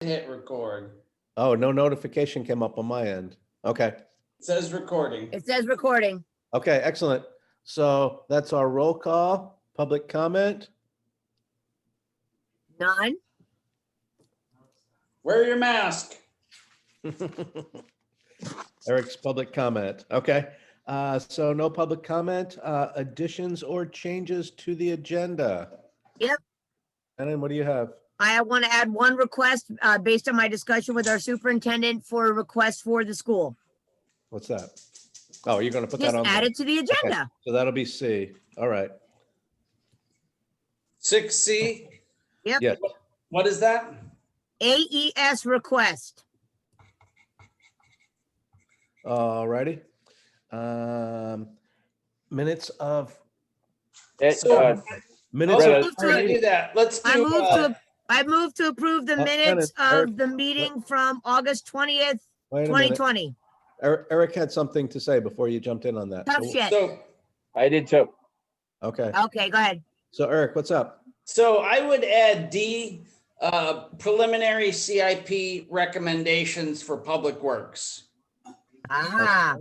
Hit record. Oh, no notification came up on my end. Okay, It says recording. It says recording. okay, excellent. So that's our roll call, public comment. None. Wear your mask. Eric's public comment, okay. Uh, so no public comment, uh, additions or changes to the agenda? Yep. And then what do you have? I want to add one request uh, based on my discussion with our superintendent for a request for the school. What's that? Oh, you're gonna put that Just on, add there. it to the agenda. so that'll be C, all right, Six C, yes. what is that? AES E request. Alrighty. Um, minutes of, It, So- uh, minutes Also, of, Right. before we do that, let's I do, move uh, to, I move to approve the Uh, minutes Dennis, of the meeting from August twentieth, wait a twenty minute. twenty. Er- Eric had something to say before you jumped in on that. Tough So- shit. so, I did too. Okay, Okay, go ahead. so Eric, what's up? so I would add D, uh, preliminary CIP recommendations for public works. Ah,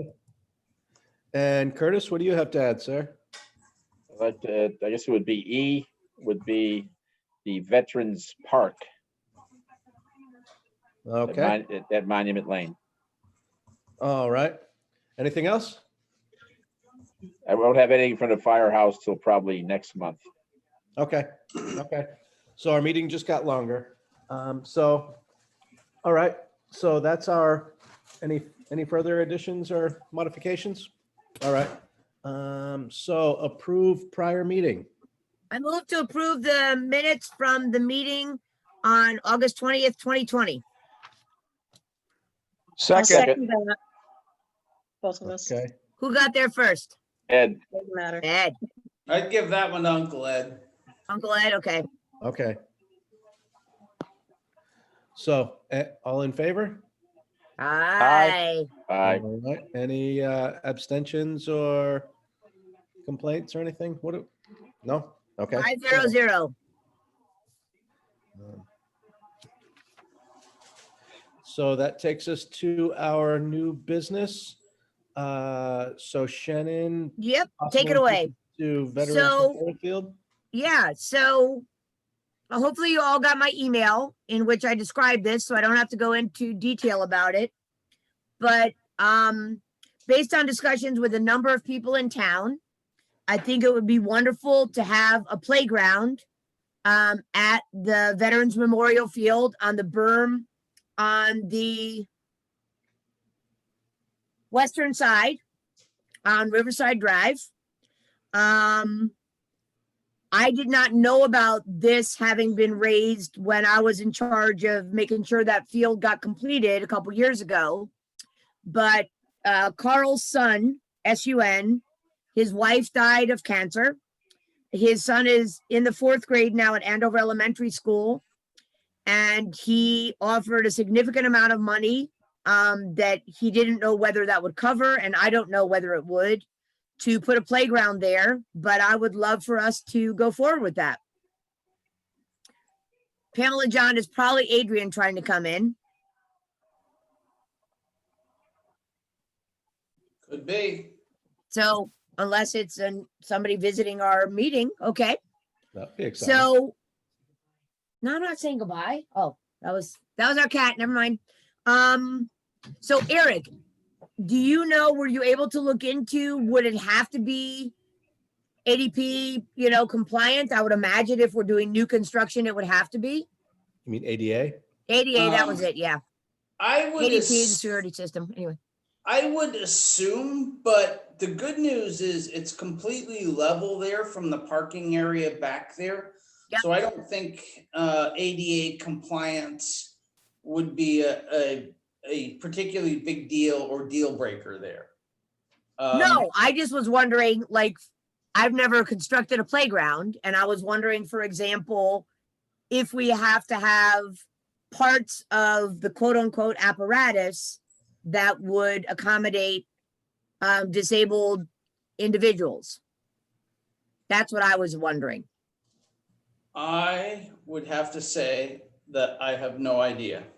And Curtis, what do you have to add, sir? But uh, I guess it would be E would be the Veterans Park at Okay, Mon- at- at Monument Lane. all right. Anything else? I won't have anything from the firehouse till probably next month. Okay, okay. So our meeting just got longer. Um, so, all right, so that's our, any, any further additions or modifications? All right, um, so approve prior meeting. I move to approve the minutes from the meeting on August twentieth, twenty twenty. Second. I'll second that. Both of us, Okay, Who got there first? Ed, doesn't matter. Ed, I'd give that one to Uncle Ed. Uncle Ed, okay. okay. So, eh, all in favor? Aye. aye. All right. Any uh, abstentions or complaints or anything? What? do- No? Okay. Five zero zero. Um, So that takes us to our new business. Uh, So Shannon. Yep, take it possible away. To Veterans So- Memorial Field? Yeah, so uh, hopefully you all got my email in which I described this, so I don't have to go into detail about it. But um, based on discussions with a number of people in town, I think it would be wonderful to have a playground um, at the Veterans Memorial Field on the berm on the western side on Riverside Drive. Um, I did not know about this having been raised when I was in charge of making sure that field got completed a couple years ago. But uh, Carl's son, S-U-N, his wife died of cancer. His son is in the fourth grade now at Andover Elementary School. And he offered a significant amount of money um, that he didn't know whether that would cover, and I don't know whether it would to put a playground there, but I would love for us to go forward with that. Pamela John is probably Adrian trying to come in. Could be. So unless it's an, somebody visiting our meeting, okay. That'd be exciting. So no, I'm not saying goodbye. Oh, that was, that was our cat. Never mind. Um, so Eric, do you know, were you able to look into, would it have to be ADP, you know, compliant? I would imagine if we're doing new construction, it would have to be. You mean ADA? 88, that was Um, it, yeah. I would. 88 ass- security system, anyway. I would assume, but the good news is it's completely level there from the parking area back there. Yeah. So I don't think uh, ADA compliance would be a, a, a particularly big deal or deal breaker there. Um, No, I just was wondering, like, I've never constructed a playground, and I was wondering, for example, if we have to have parts of the quote-unquote apparatus that would accommodate um, disabled individuals. That's what I was wondering. I would have to say, that I have no idea.